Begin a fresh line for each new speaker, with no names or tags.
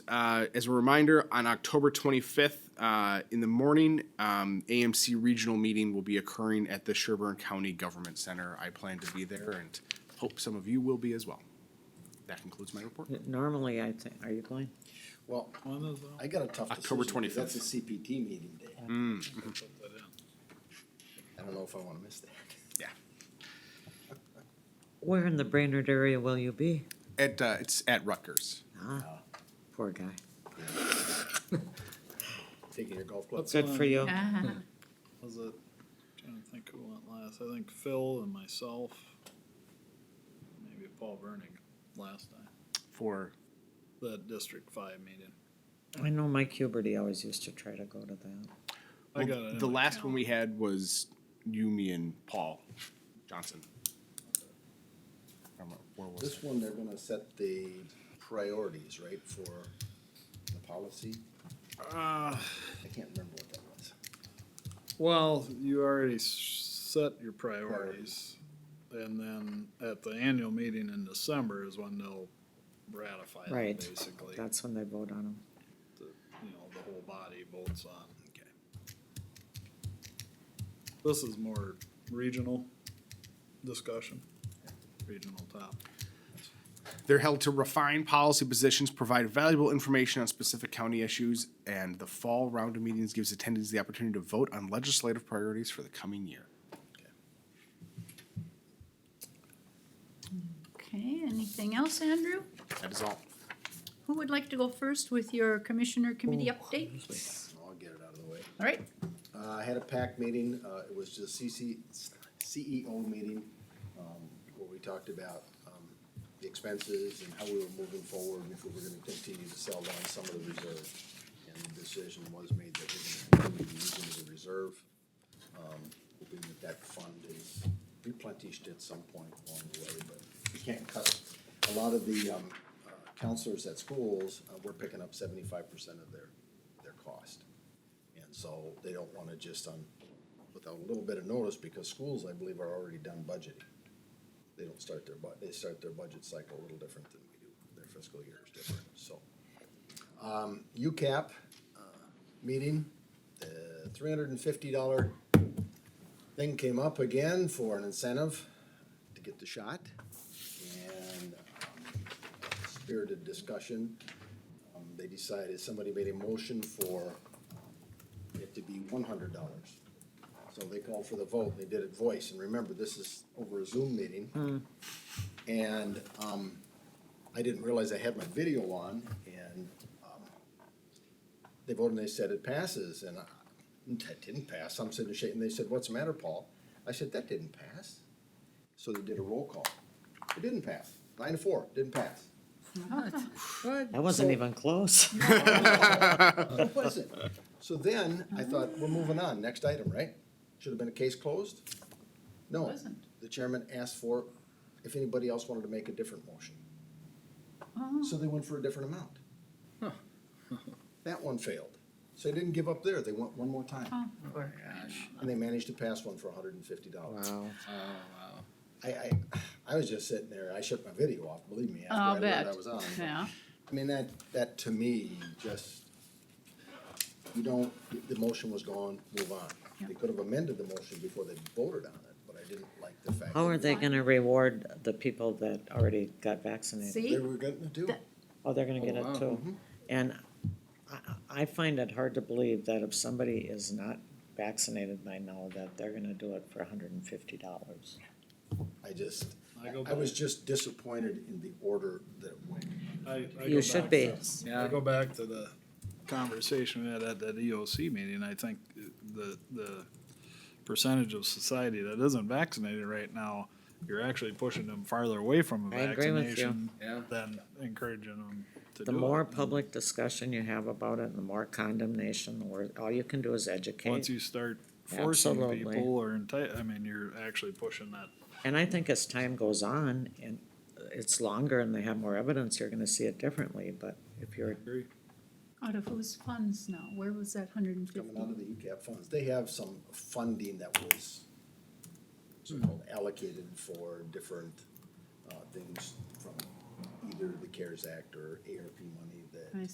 uh, as a reminder, on October 25th uh, in the morning, um, AMC regional meeting will be occurring at the Sherburne County Government Center. I plan to be there and hope some of you will be as well. That concludes my report.
Normally, I'd say, are you going?
Well, I got a tough decision.
October
'cause
25th.
That's a CPT meeting day. I don't know if I wanna miss that.
Yeah.
Where in the Brainerd area will you be?
At, uh, it's at Rutgers.
Uh,
Ah, poor guy.
Taking your golf club.
That's
Good
fine.
for you.
Was it, trying to think who went last, I think Phil and myself, maybe Paul Vernick last time,
For
the District Five meeting.
I know Mike Huberty always used to try to go to that.
I got it
well,
in
the
my
last one we had was you, me, and Paul Johnson. I don't know, Where was it?
This one, they're gonna set the priorities, right, for the policy?
calendar. Uh,
I can't remember what that was.
well, you already s- set your priorities. And then at the annual meeting in December is when they'll ratify
Right.
it, basically.
That's when they vote on him.
the, you know, the whole body bolts on. Okay. This is more regional discussion, regional top.
They're held to refine policy positions, provide valuable information on specific county issues, and the fall round of meetings gives attendees the opportunity to vote on legislative priorities for the coming year.
Okay, anything else, Andrew?
That is all.
Who would like to go first with your commissioner committee updates?
I'll get it out of the way.
All right,
Uh, I had a PAC meeting, uh, it was just CC, CEO E meeting, um, where we talked about, um, the expenses and how we were moving forward and if we were gonna continue to sell down some of the reserve. And the decision was made that we're gonna continue using the reserve, um, hoping that that fund is replenished at some point along the way, but we can't cut. A lot of the, um, uh, counselors at schools, uh, we're picking up seventy-five percent of their, their cost. And so they don't wanna just on, without a little bit of notice, because schools, I believe, are already done budgeting. They don't start their bu- they start their budget cycle a little different than we do, their fiscal year is different, so. Um, UCAP, uh, meeting, the three hundred and fifty dollar thing came up again for an incentive to get the shot. And um, spirited discussion, um, they decided, somebody made a motion for it to be one hundred dollars. So they called for the vote, they did it voice, and remember, this is over a Zoom meeting. And, um, I didn't realize I had my video on, and, um, they voted and they said it passes, and I, that didn't pass, I'm sitting shaking, they said, what's the matter, Paul? I said, that didn't pass. So they did a roll call, it didn't pass, nine to four, didn't pass. Ah,
Ah,
That wasn't
So-
even close.
What was it? So then, I thought, we're moving on, next item, right? Should have been a case closed? No,
Wasn't.
the chairman asked for if anybody else wanted to make a different motion.
Ah,
So they went for a different amount. That one failed, so they didn't give up there, they went one more time,
oh, poor guy.
and they managed to pass one for hundred and fifty dollars.
Wow.
Oh,
I, I, I was just sitting there, I shut my video off, believe me, after
I'll
I
Oh, bet,
learned I was on. but-
yeah.
I mean, that, that to me, just, you don't, the motion was gone, move on. They
Yeah.
could have amended the motion before they voted on it, but I didn't like the fact.
How
that
are they gonna reward the people that already got vaccinated?
See?
They were gonna do it.
Oh, they're gonna get it too. And I, I find it hard to believe that if somebody is not vaccinated by now, that they're gonna do it for hundred and fifty dollars.
I just,
I go
I was
back-
just disappointed in the order that it went.
I- I
You
go
should
back
be.
to- I go back to the conversation we had at that EOC meeting, I think the, the percentage of society that isn't vaccinated right now, you're actually pushing them farther away from a
I agree with you.
vaccination than encouraging them to do
The
it.
more
And
public discussion you have about it, and the more condemnation, the wor all you can do is
Once
educate.
you start forcing
Absolutely.
people or enti- I mean, you're actually pushing that
And I think as time goes on and it's longer and they have more evidence, you're gonna see it differently, but if you're,
Out of whose funds now? Where was that hundred and fifty?
Coming out of the E UCAP funds, they have some funding that was so-called allocated for different, uh, things from either the CARES Act or ARP money
I
that